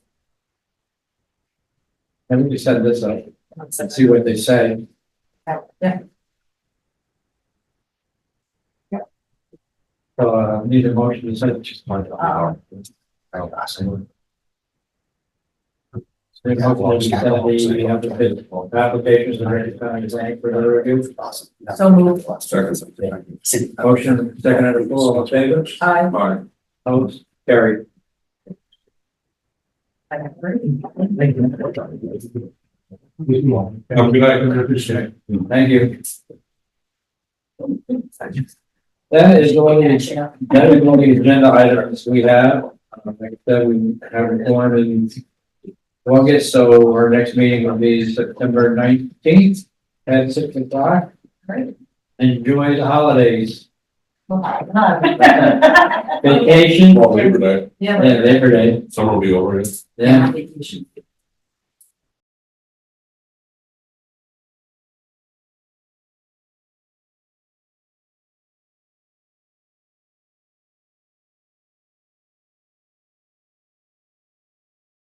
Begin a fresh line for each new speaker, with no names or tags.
And we can send this out and see what they say.
Yeah.
So, uh, need a motion to send.
Uh-oh.
Then hopefully we can tell the, we have the bid, applications are ready, kind of, thank for the review.
So moved.
Motion, second out of four, all in favor?
I.
Alright.
Opposed? Carried.
I
Thank you.
Have a good night, I appreciate it.
Thank you. That is going to That is one of the agenda items we have. Uh, Like I said, we have a forum in August, so our next meeting will be September nineteenth at six o'clock.
Great.
Enjoy the holidays,
Yeah.
vacation,
Well, Labor Day,
Yeah.
and Labor Day.
summer will be over, yes.
Yeah,
Vacation.